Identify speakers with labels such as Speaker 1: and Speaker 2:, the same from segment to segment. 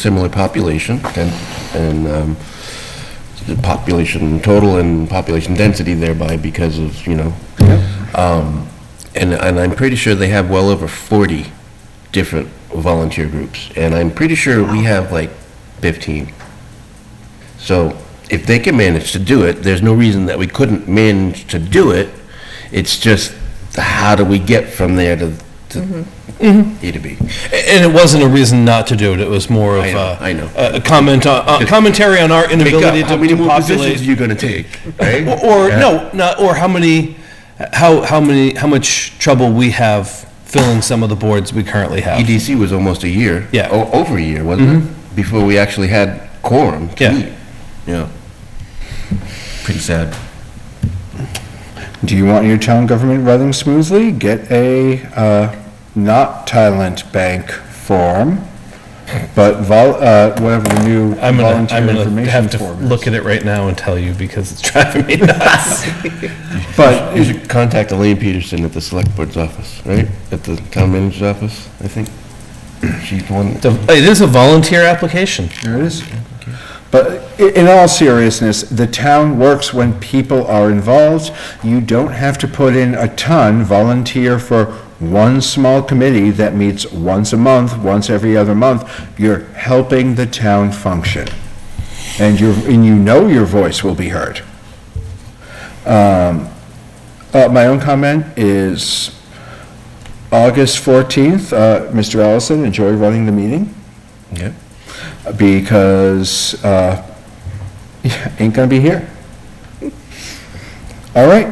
Speaker 1: similar population and, and um, the population total and population density thereby because of, you know. Um, And, and I'm pretty sure they have well over 40 different volunteer groups. And I'm pretty sure we have like 15. So if they can manage to do it, there's no reason that we couldn't manage to do it. It's just how do we get from there to, to A to B?
Speaker 2: And it wasn't a reason not to do it, it was more of
Speaker 1: I know,
Speaker 2: a.
Speaker 1: I know.
Speaker 2: A a comment, on- a commentary on our
Speaker 1: Pick up,
Speaker 2: inability
Speaker 1: how
Speaker 2: to
Speaker 1: many
Speaker 2: to
Speaker 1: more positions are
Speaker 2: populate.
Speaker 1: you gonna take, right?
Speaker 2: Or, or no, not, or how many, how, how many, how much trouble we have filling some of the boards we currently have.
Speaker 1: EDC E was almost a year.
Speaker 2: Yeah.
Speaker 1: o- Over a year, wasn't it? Before we actually had quorum to
Speaker 2: Yeah.
Speaker 1: meet. Mm-hmm. Yeah. Pretty sad.
Speaker 3: Do you want your town government running smoothly? Get a, uh, not Thailand bank form, but vol, uh, whatever the new
Speaker 2: I'm gonna, I'm
Speaker 3: volunteer
Speaker 2: gonna
Speaker 3: information
Speaker 2: have to
Speaker 3: form
Speaker 2: look
Speaker 3: is.
Speaker 2: at it right now and tell you because it's driving me nuts.
Speaker 3: But
Speaker 1: You should contact Elaine Peterson at the select board's office, right? At the town manager's office, I think. She's the one,
Speaker 2: It's a- It is a volunteer application.
Speaker 3: There it is. But i- in all seriousness, the town works when people are involved. You don't have to put in a ton, volunteer for one small committee that meets once a month, once every other month. You're helping the town function. And you're, and you know your voice will be heard. Um, uh, my own comment is August 14th, uh, Mr. Allison, enjoy running the meeting
Speaker 1: yeah.
Speaker 3: because uh, yeah, ain't gonna be here. All right.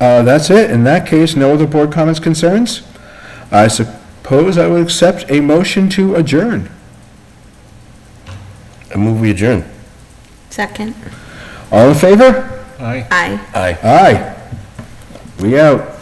Speaker 3: Uh, that's it. In that case, no other board comments, concerns? I suppose I would accept a motion to adjourn.
Speaker 1: I move we adjourn.
Speaker 4: Second.
Speaker 3: All in favor?
Speaker 4: Aye.
Speaker 1: Aye.
Speaker 3: Aye. We out.